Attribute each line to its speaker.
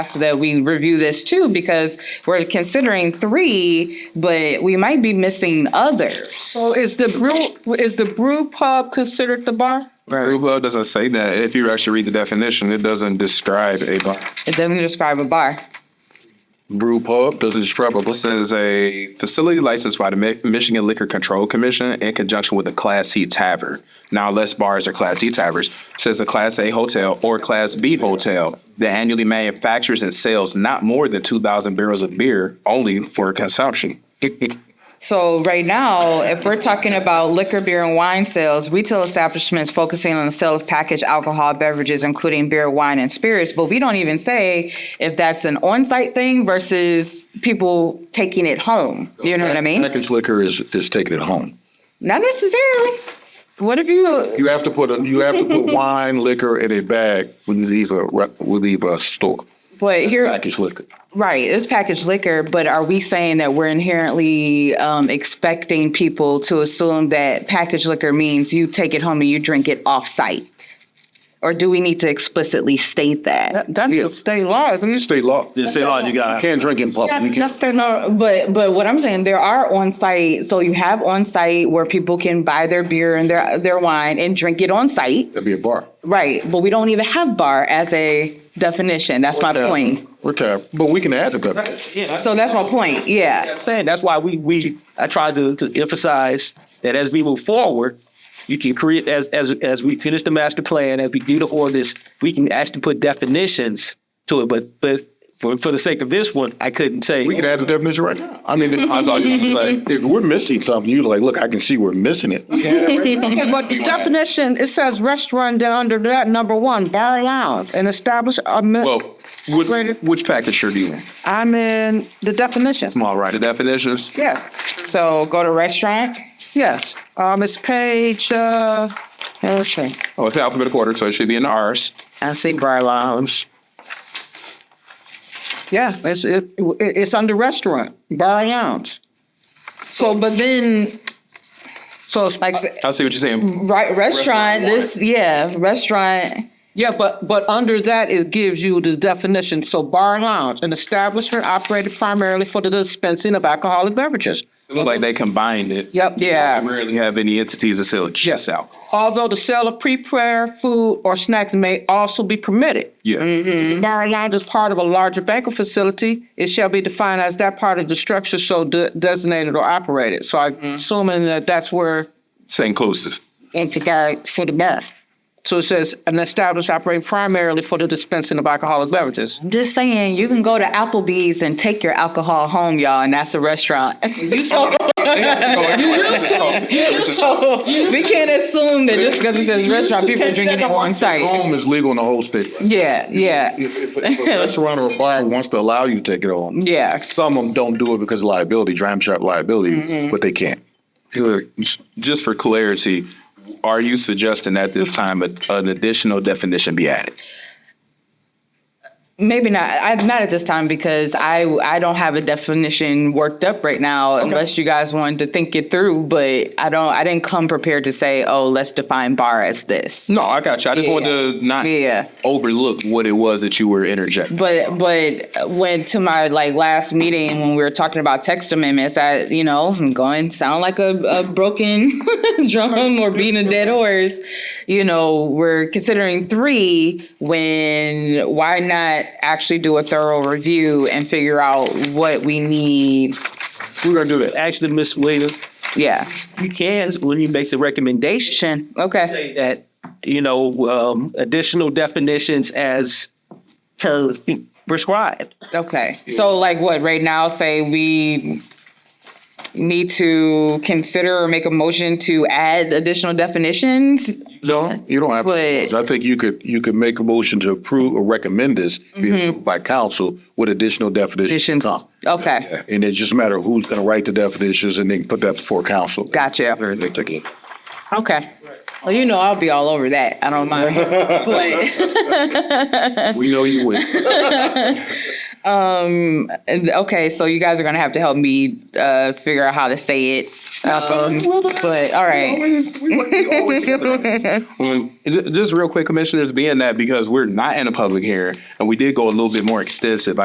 Speaker 1: ask that we review this too, because we're considering three, but we might be missing others.
Speaker 2: So is the brew, is the brew pub considered the bar?
Speaker 3: Brew pub doesn't say that. If you actually read the definition, it doesn't describe a bar.
Speaker 1: It doesn't describe a bar.
Speaker 3: Brew pub doesn't describe a bar. This is a facility licensed by the Mi- Michigan Liquor Control Commission in conjunction with a Class C tavern. Now, unless bars are Class C taverns, says a Class A hotel or Class B hotel that annually manufactures and sells not more than two thousand barrels of beer only for consumption.
Speaker 1: So right now, if we're talking about liquor, beer, and wine sales, retail establishments focusing on the sale of packaged alcohol beverages, including beer, wine, and spirits, but we don't even say if that's an on-site thing versus people taking it home. You know what I mean?
Speaker 4: Package liquor is, is taken at home.
Speaker 1: Not necessarily. What if you,
Speaker 4: You have to put, a- you have to put wine, liquor in a bag when you leave a, re- when you leave a store.
Speaker 1: but here.
Speaker 4: Package liquor.
Speaker 1: Right, it's packaged liquor, but are we saying that we're inherently um, expecting people to assume that packaged liquor means you take it home and you drink it off site? Or do we need to explicitly state that?
Speaker 2: That, that's the state law, isn't it?
Speaker 4: State law. You
Speaker 5: Just say, Lord, you got
Speaker 4: can't drink in public. You
Speaker 1: That's
Speaker 4: can't-
Speaker 1: the no, but but what I'm saying, there are on site, so you have on site where people can buy their beer and their their wine and drink it on site,
Speaker 4: That'd be a bar.
Speaker 1: right? But we don't even have bar as a definition. That's my point.
Speaker 4: We're tired, but we can add to that.
Speaker 1: So that's my point. Yeah,
Speaker 5: I'm saying that's why we we I tried to, to emphasize that as we move forward, you can create as as as we finish the master plan, as we do the ordinance, we can actually put definitions to it. But but for, for the sake of this one, I couldn't say
Speaker 4: We can add the definition right now. I mean, I was like, if we're missing something, you're like, look, I can see we're missing it.
Speaker 2: Okay, but the definition, it says restaurant, then under that, number one, bar lounge, and establish a mi-
Speaker 3: Well, which, which package sure do you want?
Speaker 2: I'm in the definition.
Speaker 3: All right, the definitions.
Speaker 2: Yes,
Speaker 1: so go to restaurant.
Speaker 2: yes. Um, it's page, uh, okay.
Speaker 3: Oh, it's alphabetical order, so it should be in the R's.
Speaker 1: I see bar lounge.
Speaker 2: Yeah, it's, it, it's under restaurant, bar lounge.
Speaker 1: So, but then,
Speaker 2: So it's
Speaker 1: like,
Speaker 2: like,
Speaker 1: s-
Speaker 3: I see what you're saying.
Speaker 1: right, restaurant, this, yeah, restaurant,
Speaker 2: yeah, but, but under that, it gives you the definition. So bar lounge, an establishment operated primarily for the dispensing of alcoholic beverages.
Speaker 3: It looked like they combined it.
Speaker 2: Yep.
Speaker 3: I
Speaker 1: yeah.
Speaker 3: rarely have any entities that sell just alcohol.
Speaker 2: Although the sale of pre-prepared food or snacks may also be permitted.
Speaker 3: Yeah.
Speaker 2: The Bar lounge is part of a larger banquet facility. It shall be defined as that part of the structure so de- designated or operated. So I'm assuming that that's where
Speaker 3: It's inclusive.
Speaker 2: it's regard for the bar. So it says an establishment operating primarily for the dispensing of alcoholic beverages.
Speaker 1: I'm just saying, you can go to Applebee's and take your alcohol home, y'all, and that's a restaurant. So, so we can't assume that just because it says restaurant, people are drinking it on site.
Speaker 4: Home is legal in the whole state.
Speaker 1: Yeah, yeah,
Speaker 4: If, if a- if a restaurant or a bar wants to allow you to take it home,
Speaker 1: yeah.
Speaker 4: Some of them don't do it because of liability, dram shop liability,
Speaker 1: Mm-hmm.
Speaker 4: but they can't.
Speaker 3: Just for clarity, are you suggesting at this time a- an additional definition be added?
Speaker 1: Maybe not, I, not at this time because I, I don't have a definition worked up right now unless you guys wanted to think it through, but I don't, I didn't come prepared to say, oh, let's define bar as this.
Speaker 3: No, I got you. I just wanted to not
Speaker 1: Yeah.
Speaker 3: overlook what it was that you were interjecting.
Speaker 1: But but when to my like last meeting when we were talking about text amendments, I you know I'm going sound like a, a broken drum or beating a dead horse. You know we're considering three when why not actually do a thorough review and figure out what we need?
Speaker 5: we're gonna do that. Actually, Miss Williams,
Speaker 1: Yeah.
Speaker 5: you can when you make the recommendation.
Speaker 1: Shin. Okay.
Speaker 5: say that, you know, um, additional definitions as per- prescribed.
Speaker 1: Okay. So like what right now say we need to consider or make a motion to add additional definitions
Speaker 4: No, you don't have.
Speaker 1: But-
Speaker 4: to. I think you could, you could make a motion to approve or recommend this be approved by council with additional definitions.
Speaker 1: Mm-hmm. Definitions.
Speaker 4: to come.
Speaker 1: Okay,
Speaker 4: And it's just a matter of who's gonna write the definitions and then put that before council.
Speaker 1: gotcha.
Speaker 4: They take it.
Speaker 1: Okay. Well, you know, I'll be all over that. I don't mind. But,
Speaker 4: We know you would.
Speaker 1: And, okay, so you guys are gonna have to help me uh, figure out how to say it. Um, but all right.
Speaker 3: Um, ju- Just real quick, commissioners, being that because we're not in a public hearing and we did go a little bit more extensive,